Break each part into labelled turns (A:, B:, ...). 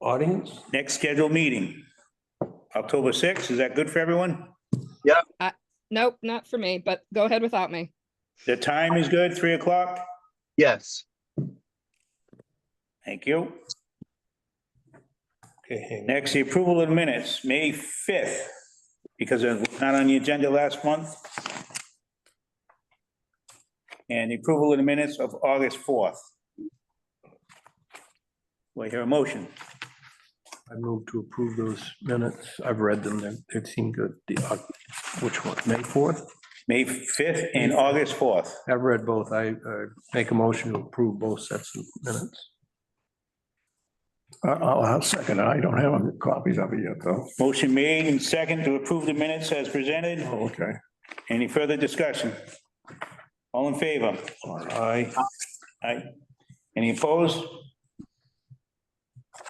A: audience?
B: Next scheduled meeting, October sixth. Is that good for everyone?
C: Nope, not for me, but go ahead without me.
B: The time is good, three o'clock?
D: Yes.
B: Thank you.
A: Okay, hang on.
B: Next, the approval of minutes, May fifth, because it was not on the agenda last month. And the approval of the minutes of August fourth. Do I hear a motion?
A: I move to approve those minutes. I've read them. They- They seem good. The, uh, which one? May fourth?
B: May fifth and August fourth.
A: I've read both. I uh, make a motion to approve both sets of minutes.
E: I- Uh, I'll, I'll second it. I don't have any copies of it yet, though.
B: Motion made and second to approve the minutes as presented.
E: Oh, okay.
B: Any further discussion? All in favor?
E: All right.
B: Aye. Aye. Any opposed?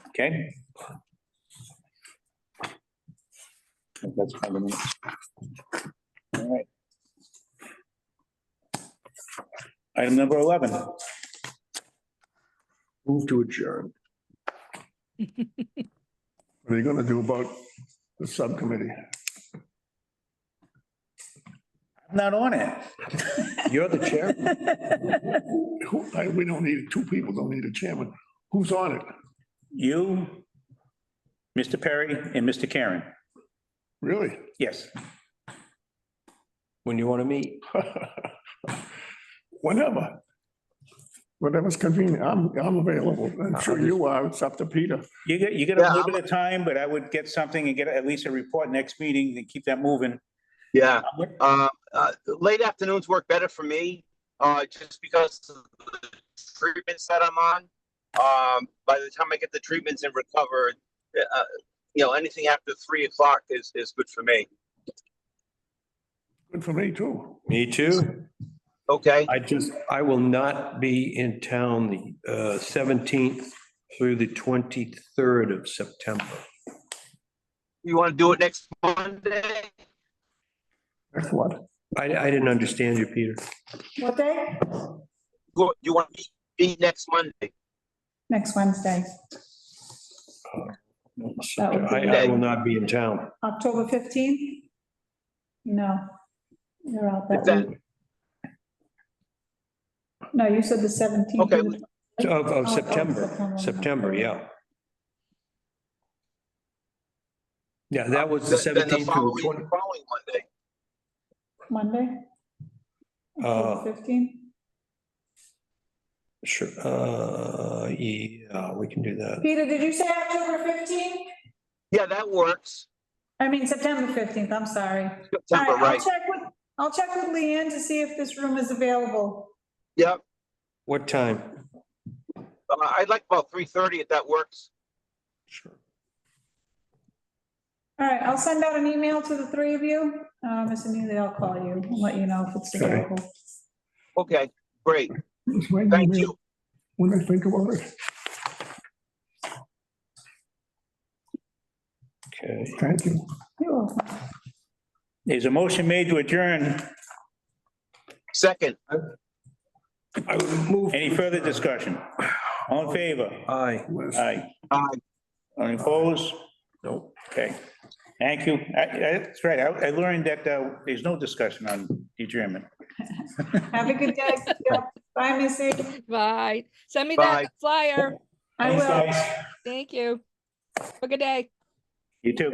B: Okay. That's fine with me. All right. Item number 11,
A: Move to adjourn.
E: What are you gonna do about the subcommittee?
B: I'm not on it.
A: You're the chair.
E: Who, I, we don't need, two people don't need a chairman. Who's on it?
B: You, Mr. Perry, and Mr. Karen.
E: Really?
B: Yes.
A: When you want to meet.
E: Whenever. Whatever's convenient. I'm, I'm available. I'm sure you are. It's up to Peter.
B: You get, you get a little bit of time, but I would get something and get at least a report next meeting and keep that moving.
D: Yeah. Uh, uh, late afternoons work better for me, uh, just because of the treatments that I'm on. Um, by the time I get the treatments and recover, uh, you know, anything after three o'clock is, is good for me.
E: Good for me, too.
A: Me too.
D: Okay,
A: I just, I will not be in town the uh, seventeenth through the twenty-third of September.
D: you want to do it next Monday?
E: That's what.
A: I, I didn't understand you, Peter.
F: What day?
D: Go- You want to be next Monday?
F: Next Wednesday,
A: I, I will not be in town.
F: October 15th? No. You're out
D: Is
F: that
D: that-
F: week. No, you said the 17th.
D: Okay.
A: Of, of
F: Oh, oh,
A: September,
F: September.
A: September, yeah. Yeah, that was the
D: Um, Then- then
A: seventeenth through
D: following-
A: twenty,
D: Following Monday,
F: Monday?
A: Uh.
F: October 15th?
A: sure, uh, yeah, we can do that.
F: Peter, did you say October 15th?
D: yeah, that works.
F: I mean, September 15th, I'm sorry. All right,
D: September,
F: I'll
D: right?
F: check with- I'll check with Leanne to see if this room is available.
D: Yep,
A: What time?
D: Uh, I'd like about three thirty if that works.
A: Sure.
F: All right, I'll send out an email to the three of you. Uh, Mr. Neely, I'll call you and let you know if it's
E: Okay.
F: available.
D: Okay, great,
E: It's right in the
D: thank
E: middle.
D: you.
E: When I think about it,
A: Okay,
E: thank you.
F: You're welcome.
B: There's a motion made to adjourn.
D: Second.
A: I would move,
B: Any further discussion? All in favor?
A: aye,
E: Liz.
B: Aye.
D: Aye.
B: Any opposed?
A: nope.
B: Okay. Thank you. I- I- That's right. I I learned that uh, there's no discussion on adjournment.
F: Have a good day. Bye, Missy.
C: Bye. Send me
D: Bye.
C: that flyer.
F: I
B: Thanks,
F: will.
B: guys.
C: Thank you. Have a good day.
B: You too.